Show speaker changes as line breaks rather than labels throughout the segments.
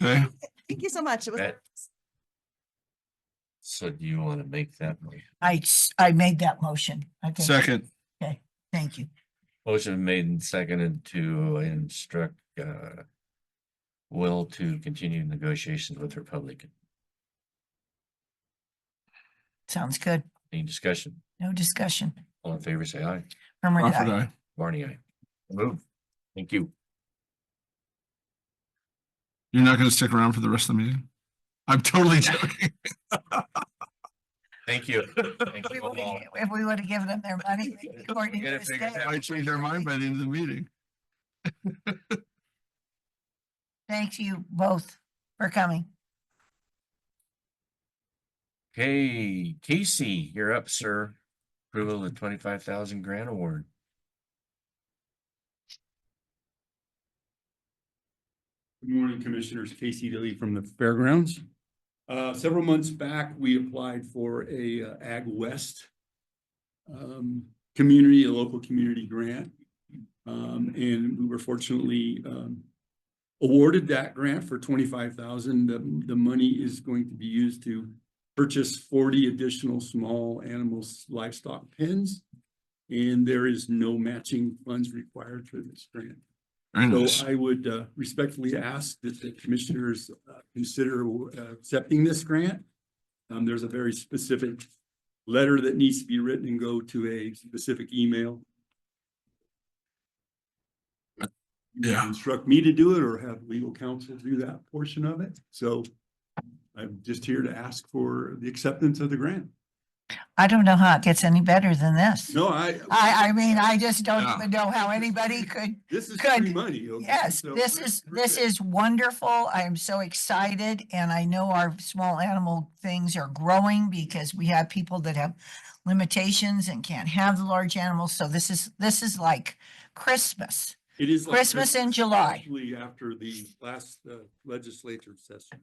Okay,
Thank you so much. It was,
That- So do you want to make that motion?
I, s- I made that motion. I think,
second,
thank you.
Motion made and seconded to instruct uh. Will to continue negotiations with Republican.
Sounds good.
Any discussion?
No discussion.
All in favor, say aye.
Herman,
Crawford,
aye.
aye.
Barney, aye. Move. Thank you.
You're not gonna stick around for the rest of the meeting? I'm totally joking.
Thank you. Thank
If we
you
would've
all.
gi- If we would have given them their money. they wouldn't
Gotta
have
figure it
stayed.
out.
I changed their mind by the end of the meeting.
Thank you both for coming.
Hey, Casey, you're up, sir. Approval of twenty-five thousand grant award.
Good morning, Commissioners. Casey Dilly from the Fairgrounds. Uh, several months back, we applied for a uh, Ag West um, community, a local community grant. Um, and we were fortunately um, awarded that grant for twenty-five thousand. The, the money is going to be used to purchase forty additional small animals livestock pens. And there is no matching funds required for this grant.
Very nice.
So I would uh, respectfully ask that the commissioners uh, consider uh, accepting this grant. Um, there's a very specific letter that needs to be written and go to a specific email. You
Yeah.
Instruct me to do it or have legal counsel do that portion of it. So I'm just here to ask for the acceptance of the grant.
I don't know how it gets any better than this.
No, I.
I, I mean, I just don't
Yeah.
even know how anybody could.
This is
could-
free money. okay?
Yes,
So
this
we're-
is,
we're
this
good.
is wonderful. I am so excited and I know our small animal things are growing because we have people that have limitations and can't have the large animals. So this is, this is like Christmas.
It is. like
Christmas in July.
Actually, after the last uh, legislature session.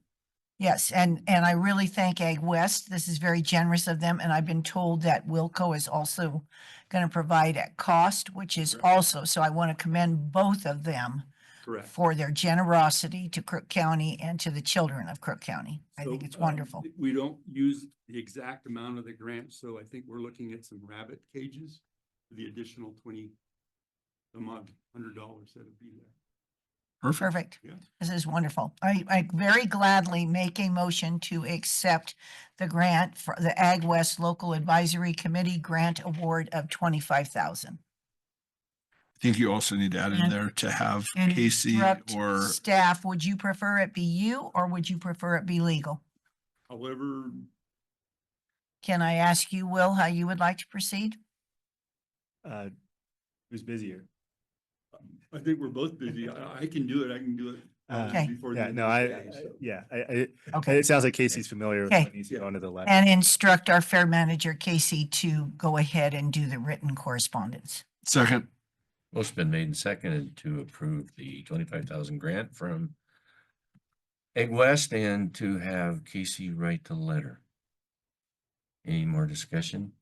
Yes, and, and I really thank Ag West. This is very generous of them, and I've been told that Wilco is also going to provide at cost, which is
Correct.
also, so I want to commend both of them
Correct.
for their generosity to Crook County and to the children of Crook County. I
So,
think it's
um,
wonderful.
We don't use the exact amount of the grant, so I think we're looking at some rabbit cages, for the additional twenty a month, hundred dollars that'll be there.
Perfect.
Perfect.
Yeah.
This is wonderful. I, I very gladly make a motion to accept the grant for the Ag West Local Advisory Committee Grant Award of twenty-five thousand.
I think you also need to add in
And-
there to have
and
Casey
Interrupt
or
Staff, would you prefer it be you or would you prefer it be legal?
However,
Can I ask you, Will, how you would like to proceed?
uh, who's busier.
I think we're both busy. I, I can do it. I can do it. uh,
Okay.
before the
Yeah,
end
no,
of the
I,
day,
I-
so.
yeah, I, I,
Okay,
it sounds like Casey's familiar with
Okay.
what needs to go into the left.
and instruct our fair manager Casey to go ahead and do the written correspondence.
second,
Motion been made and seconded to approve the twenty-five thousand grant from Egg West and to have Casey write the letter. Any more discussion?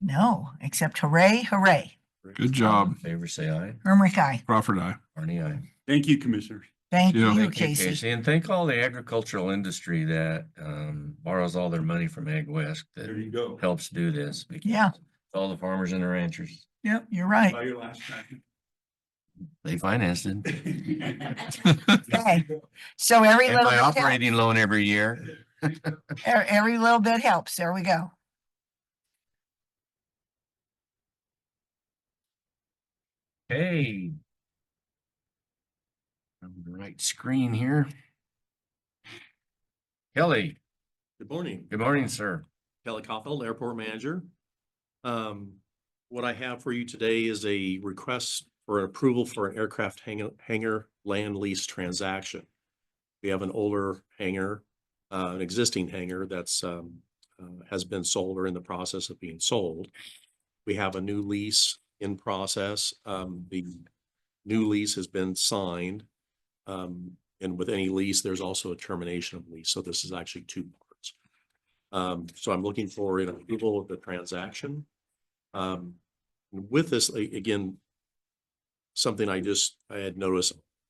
No, except hooray, hooray.
good
All in
Um,
job,
Favor say aye,
Hermrick, aye.
Crawford, I.
Barney aye.
Thank you, Commissioner.
Thank
you.
you,
Thank you,
Casey.
Casey, and thank all the agricultural industry that um borrows all their money from Egg West
There
that
you go.
helps do this. because
Yeah.
All the farmers and the ranchers,
Yep, you're right.
Buy your last time.
they financed it.
Okay. So every
And
little,
my
bit helps.
operating loan every year.
E- every little bit helps. There we go.
Hey. On the right screen here. Kelly,
Good morning,
good morning, sir.
Kelly Caulfield, Airport Manager. Um, what I have for you today is a request for approval for an aircraft hangar, hangar land lease transaction. We have an older hangar, uh, an existing hangar that's, um, uh, has been sold or in the process of being sold. We have a new lease in process. Um, the new lease has been signed. Um, and with any lease, there's also a termination of lease. So this is actually two parts. Um, so I'm looking for an approval of the transaction. Um, with this, a- again, something I just, I had noticed